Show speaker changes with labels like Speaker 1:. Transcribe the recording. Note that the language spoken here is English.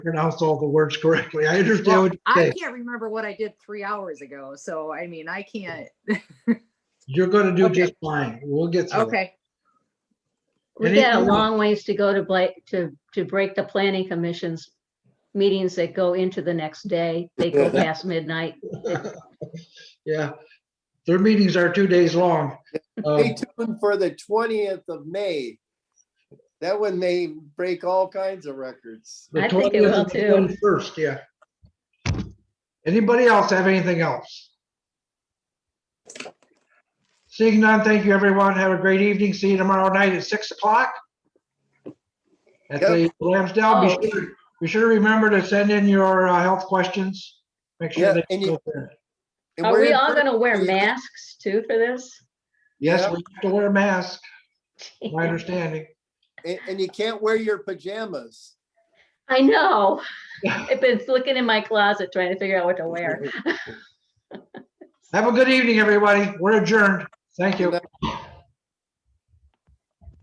Speaker 1: pronounce all the words correctly. I understand
Speaker 2: Well,
Speaker 1: what you're
Speaker 2: I
Speaker 1: saying.
Speaker 2: can't remember what I did three hours ago, so I mean, I can't,
Speaker 1: You're gonna do
Speaker 2: Okay.
Speaker 1: just fine. We'll get through it.
Speaker 2: okay,
Speaker 3: We got a
Speaker 1: Anything-
Speaker 3: long ways to go to break, to, to break the planning commission's meetings that go into the next day. They go past midnight.
Speaker 1: Yeah, their meetings are two days long. Um,
Speaker 4: Stay tuned for the twentieth of May. That one may break all kinds of records.
Speaker 1: the
Speaker 3: I think
Speaker 1: 20th
Speaker 3: it will
Speaker 1: and the
Speaker 3: too.
Speaker 1: 21st, yeah. Anybody else have anything else? Seeing none, thank you, everyone. Have a great evening. See you tomorrow night at 6 o'clock. At the Lambsdale, be sure, be sure to remember to send in your uh, health questions. Make sure
Speaker 4: Yeah,
Speaker 1: that.
Speaker 4: and you- And
Speaker 3: Are
Speaker 4: we're
Speaker 3: we
Speaker 4: in
Speaker 3: all
Speaker 4: person.
Speaker 3: gonna wear
Speaker 4: Yeah.
Speaker 3: masks too for this?
Speaker 1: Yes,
Speaker 4: Yeah.
Speaker 1: we have to wear a mask, my understanding.
Speaker 4: And, and you can't wear your pajamas.
Speaker 3: I know. I've been looking in my closet trying to figure out what to wear.
Speaker 1: Have a good evening, everybody. We're adjourned. Thank you.
Speaker 4: Good night.